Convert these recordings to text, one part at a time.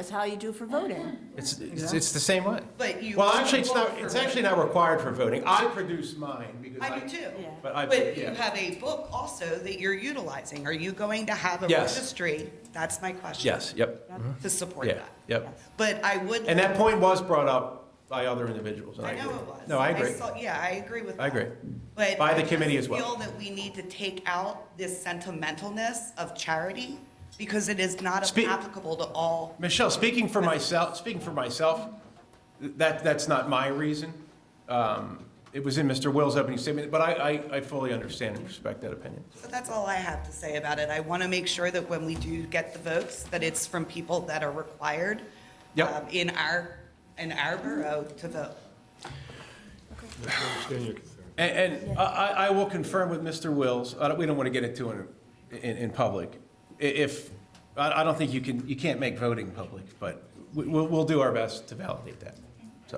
That's how you do for voting. It's, it's, it's the same way. But you. Well, actually, it's not, it's actually not required for voting. I produce mine because I. I do too. Yeah. But I- But you yeah. have a book also that you're utilizing. Are you going to have a Yes. registry? That's my question. Yes, yep, To support yeah, that. yep. But I would. And that point was brought up by other individuals, and I I agree. know it was. No, I agree. saw- Yeah, I agree with that. I agree. But. By the I committee just as well. feel that we need to take out this sentimentalness of charity because it is not Spe- applicable to all. Michelle, speaking for myself, speaking for myself, th- that, that's not my reason. Um, It was in Mr. Will's opening statement, but I, I, I fully understand and respect that opinion. But that's all I have to say about it. I want to make sure that when we do get the votes, that it's from people that are required. Yep. um, In our, in our borough to vote. And, and I, I I will confirm with Mr. Wills, I don't, we don't want to get into it in, in public. I- If, I, I don't think you can, you can't make voting public, but we, we'll, we'll do our best to validate that, so.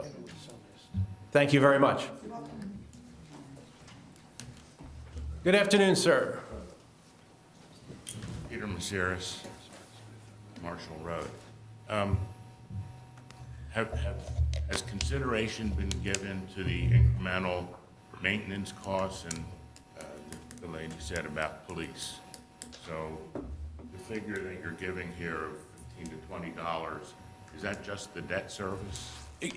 Thank you very much. Good afternoon, sir. Peter Mazeres, Marshall Road. Um, Have, have, has consideration been given to the incremental maintenance costs and uh, the the lady said about police? So the figure that you're giving here of fifteen to twenty dollars, is that just the debt service?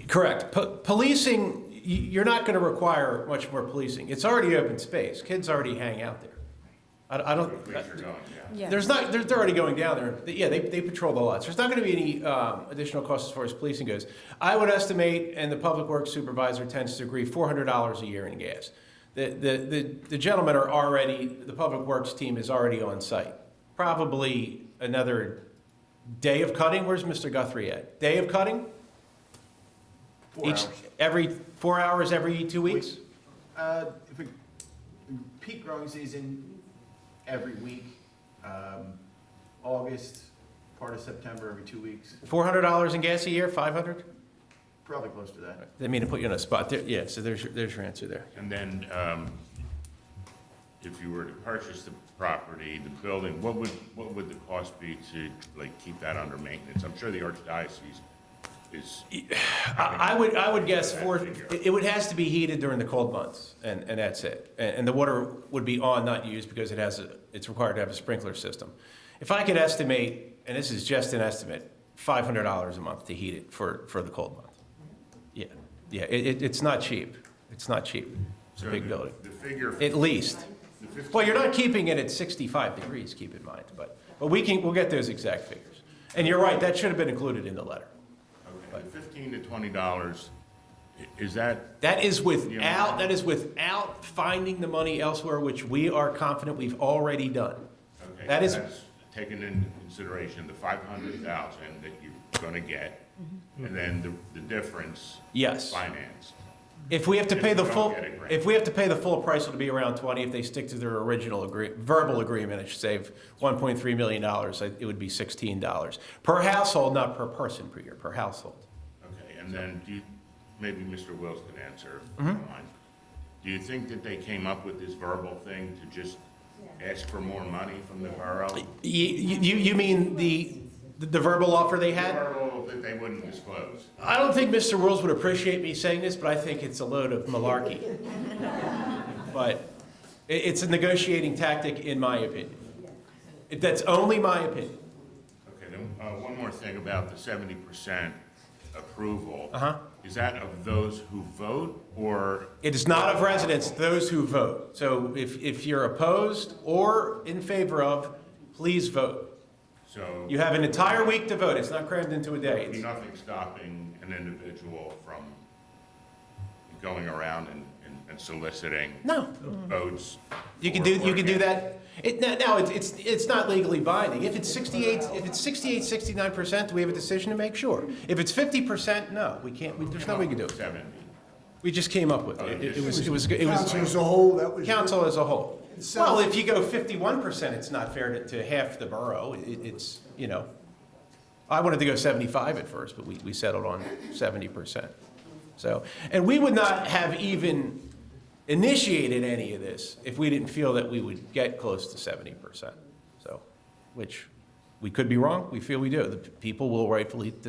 Correct. Po- Policing, y- you're not going to require much more policing. It's already open space. Kids already hang out there. I I don't, Where you're going, yeah. Yeah. there's not, they're, they're already going down there. They- Yeah, they, they patrol the lots. There's not going to be any um, additional costs as far as policing goes. I would estimate, and the public works supervisor tends to agree, four hundred dollars a year in gas. The, the, the, the gentlemen are already, the public works team is already on site. Probably another day of cutting. Where's Mr. Guthrie at? Day of cutting? Four Each, hours. every, four hours every two weeks? Uh, if we, peak growing season every week, um, August, part of September, every two weeks, Four hundred dollars in gas a year, five hundred? probably close to that. I mean, to put you on a spot, there, yeah, so there's, your- there's your answer there. And then, um, if you were to purchase the property, the building, what would, what would the cost be to, like, keep that under maintenance? I'm sure the archdiocese is, I, I would, I would guess four, That figure. it it would, has to be heated during the cold months, and, and that's it. And, and the water would be on, not used, because it has, a it's required to have a sprinkler system. If I could estimate, and this is just an estimate, five hundred dollars a month to heat it for, for the cold month. Yeah, yeah, it, it, it's not cheap, it's not cheap, it's a so big the- building, The figure, the at least. fif- Well, you're not keeping it at 65 degrees, keep in mind, but, but we can, we'll get those exact figures. And you're right, that should have been included in the letter. okay, the fifteen to twenty dollars, is that, That is without, that is without finding the money elsewhere, which we are confident we've already done. okay? That is, that's Taken into consideration, the five hundred thousand that you're gonna get, and then the, the difference Mm-hmm. yes. financed. If we have to If pay the we don't full, get a grant. if we have to pay the full price, it'll be around 20. If they stick to their original agree, verbal agreement, it should save 1.3 million dollars. It would be 16 dollars per household, not per person per year, per household. Okay, and then do you, maybe Mr. Wills can answer. if Mm-hmm. you don't mind. Do you think that they came up with this verbal thing to just ask for more money from the borough? You, you, you mean the, the verbal offer they had? Verbal that they wouldn't disclose? I don't think Mr. Wills would appreciate me saying this, but I think it's a load of malarkey. But i- it's a negotiating tactic, in my opinion. It- That's only my opinion. Okay, then, uh, one more thing about the seventy percent approval. Uh-huh. Is that of those who vote, or, It is not of residents, those who vote. So if, if you're opposed or in favor of, please vote. so, You have an entire week to vote. It's not crammed into a day. It's- nothing stopping an individual from going around and- and and soliciting No, votes? Mm-hmm. You can for- do, for you can do against? that. It, no- no, it's, it's, it's not legally binding. If it's sixty-eight, if it's sixty-eight, sixty-nine percent, do we have a decision to make? Sure. If it's fifty percent, no, we can't, we- there's nothing we can do. Seventy. We just came up with it. It it was, it was, it Council as was, a whole, that was. council as a whole. Well, if you go fifty-one percent, it's not fair to, to half the borough. It, it's, you know. I wanted to go seventy-five at first, but we, we settled on seventy percent. So, and we would not have even initiated any of this if we didn't feel that we would get close to seventy percent. So, which We could be wrong, we feel we do. The people will rightfully